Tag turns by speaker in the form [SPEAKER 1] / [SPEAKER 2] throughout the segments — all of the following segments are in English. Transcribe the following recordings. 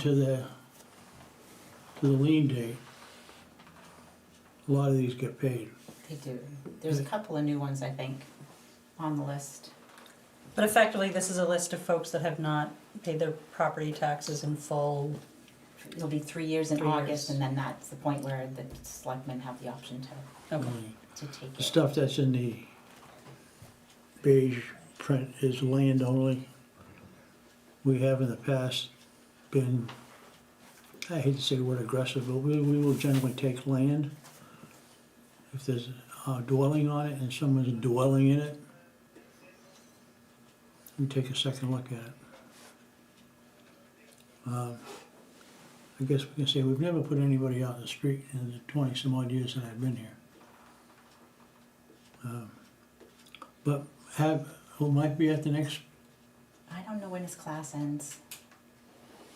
[SPEAKER 1] to the, to the lien date, a lot of these get paid.
[SPEAKER 2] They do. There's a couple of new ones, I think, on the list.
[SPEAKER 3] But effectively, this is a list of folks that have not paid their property taxes in full.
[SPEAKER 2] It'll be three years in
[SPEAKER 3] Three
[SPEAKER 2] August,
[SPEAKER 3] years.
[SPEAKER 2] and then that's the point where the selectmen have the option to, to take
[SPEAKER 1] The
[SPEAKER 2] it.
[SPEAKER 1] stuff that's in the beige print is land only. We have in the past been, I hate to say the word aggressive, but we, we will generally take land. If there's a dwelling on it and someone's dwelling in it, we take a second look at it. Um, I guess we can say we've never put anybody out in the street in the twenty some odd years that I've been here. But have, who might be at the next,
[SPEAKER 2] I don't know when his class ends.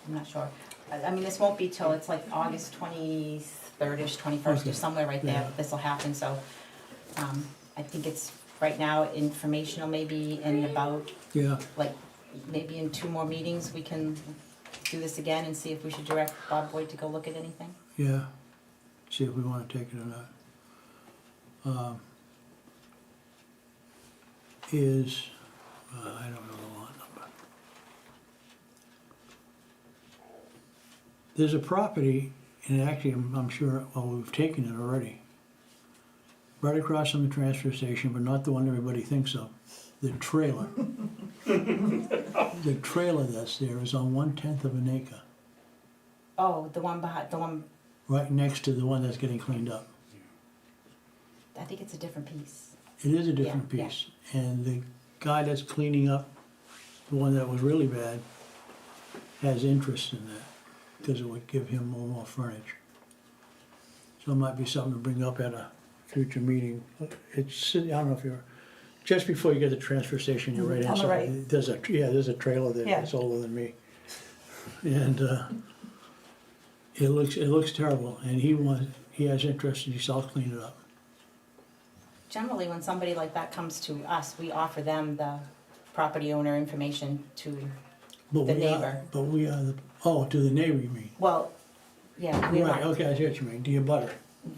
[SPEAKER 2] I'm not sure. I, I mean, this won't be till, it's like August twenty-third-ish, twenty-first,
[SPEAKER 1] Okay.
[SPEAKER 2] or somewhere right there,
[SPEAKER 1] Yeah.
[SPEAKER 2] this'll happen, so, um, I think it's, right now, informational maybe in about,
[SPEAKER 1] yeah,
[SPEAKER 2] like, maybe in two more meetings, we can do this again and see if we should direct Bob Boyd to go look at anything.
[SPEAKER 1] yeah, see if we wanna take it or not. Um, Is, uh, I don't know the lot number. There's a property, and actually, I'm, I'm sure, well, we've taken it already. Right across from the transfer station, but not the one everybody thinks of, the trailer. The trailer that's there is on one-tenth of an acre.
[SPEAKER 2] Oh, the one behind, the one,
[SPEAKER 1] right next to the one that's getting cleaned up.
[SPEAKER 2] I think it's a different piece.
[SPEAKER 1] It is a different
[SPEAKER 2] Yeah, yeah.
[SPEAKER 1] piece. And the guy that's cleaning up the one that was really bad has interest in that because it would give him more, more frontage. So it might be something to bring up at a future meeting. It's, I don't know if you're, just before you get to the transfer station, you're right
[SPEAKER 3] Mm, On the
[SPEAKER 1] inside.
[SPEAKER 3] right.
[SPEAKER 1] There's a, yeah, there's a trailer there
[SPEAKER 3] Yeah.
[SPEAKER 1] that's older than me. And, uh, it looks, it looks terrible and he wants, he has interest and he's all clean it up.
[SPEAKER 2] Generally, when somebody like that comes to us, we offer them the property owner information to,
[SPEAKER 1] But we
[SPEAKER 2] The
[SPEAKER 1] are-
[SPEAKER 2] neighbor.
[SPEAKER 1] But we are the, oh, to the neighbor, you mean?
[SPEAKER 2] well, yeah, we
[SPEAKER 1] Right,
[SPEAKER 2] want,
[SPEAKER 1] okay, I see what you mean, to your butter,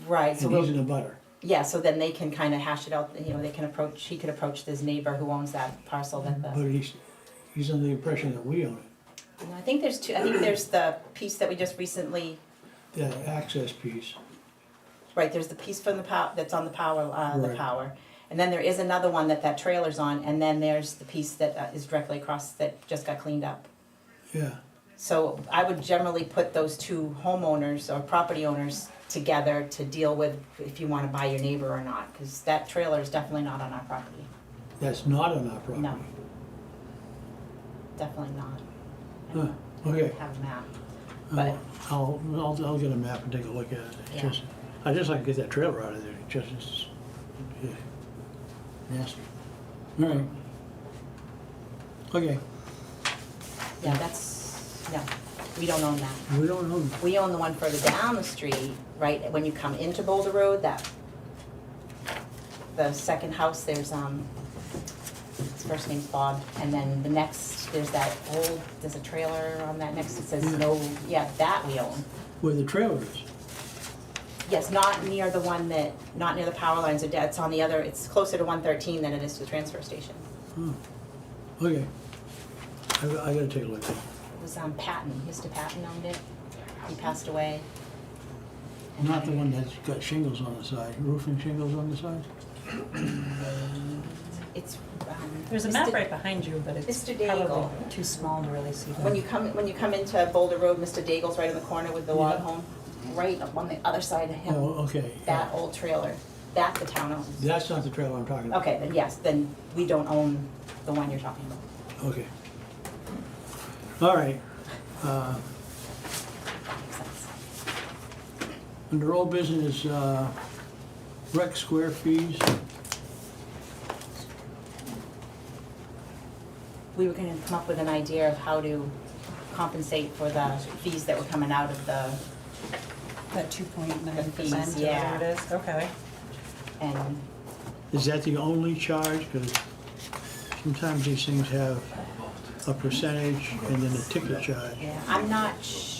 [SPEAKER 2] right, so
[SPEAKER 1] and he's
[SPEAKER 2] we'll,
[SPEAKER 1] in a butter.
[SPEAKER 2] yeah, so then they can kind of hash it out, you know, they can approach, he could approach this neighbor who owns that parcel that the,
[SPEAKER 1] But he's, he's under the impression that we own it,
[SPEAKER 2] No, I think there's two, I think there's the piece that we just recently,
[SPEAKER 1] that access piece.
[SPEAKER 2] right, there's the piece from the pow, that's on the power, uh, the
[SPEAKER 1] Right.
[SPEAKER 2] power. And then there is another one that that trailer's on, and then there's the piece that uh, is directly across that just got cleaned up.
[SPEAKER 1] Yeah,
[SPEAKER 2] So I would generally put those two homeowners or property owners together to deal with if you wanna buy your neighbor or not, cause that trailer is definitely not on our property.
[SPEAKER 1] that's not on our property.
[SPEAKER 2] No. Definitely not. I
[SPEAKER 1] Huh,
[SPEAKER 2] don't- I don't
[SPEAKER 1] okay.
[SPEAKER 2] Have a map. but-
[SPEAKER 1] I'll, I'll, I'll- I'll get a map and take a look at it, It's
[SPEAKER 2] Yeah.
[SPEAKER 1] just, I just like to get that trailer out of there, It just, it's, yeah, nasty. All right. Okay,
[SPEAKER 2] Yeah, that's, no, we don't own that.
[SPEAKER 1] we don't own,
[SPEAKER 2] We own the one further down the street, right, when you come into Boulder Road, that, the second house, there's, um, his first name's Bob, and then the next, there's that old, there's a trailer on that next, it says
[SPEAKER 1] Hmm.
[SPEAKER 2] no, yeah, that we own.
[SPEAKER 1] where the trailer is,
[SPEAKER 2] Yes, not near the one that, not near the power lines or dead, it's on the other, it's closer to one thirteen than it is to the transfer station.
[SPEAKER 1] Hmm. okay. I, I gotta take a look at it.
[SPEAKER 2] It was, um, Patton, Mr. Patton owned it, he passed away.
[SPEAKER 1] Not the one that's got shingles on the side, roofing shingles on the side?
[SPEAKER 2] It's, um.
[SPEAKER 3] There's a
[SPEAKER 2] Mr.
[SPEAKER 3] map right behind you, but it's
[SPEAKER 2] Mr.
[SPEAKER 3] probably
[SPEAKER 2] Daigle.
[SPEAKER 3] too small to really see
[SPEAKER 2] When you
[SPEAKER 3] that.
[SPEAKER 2] come, when you come into Boulder Road, Mr. Daigle's right in the corner with the log
[SPEAKER 1] Yeah.
[SPEAKER 2] home, right up on the other side of
[SPEAKER 1] Oh,
[SPEAKER 2] him,
[SPEAKER 1] okay.
[SPEAKER 2] that old trailer, that the town owns.
[SPEAKER 1] That's not the trailer I'm talking about.
[SPEAKER 2] Okay, then yes, then we don't own the one you're talking about.
[SPEAKER 1] Okay. All right. Uh,
[SPEAKER 2] Makes sense.
[SPEAKER 1] Under old business, uh, rec square fees,
[SPEAKER 2] We were gonna come up with an idea of how to compensate for the fees that were coming out of the,
[SPEAKER 3] That two point nine
[SPEAKER 2] The fees,
[SPEAKER 3] percent,
[SPEAKER 2] yeah.
[SPEAKER 3] whatever it is, okay.
[SPEAKER 2] and
[SPEAKER 1] is that the only charge? Because sometimes these things have a percentage and then a ticket charge.
[SPEAKER 2] Yeah, I'm not sure.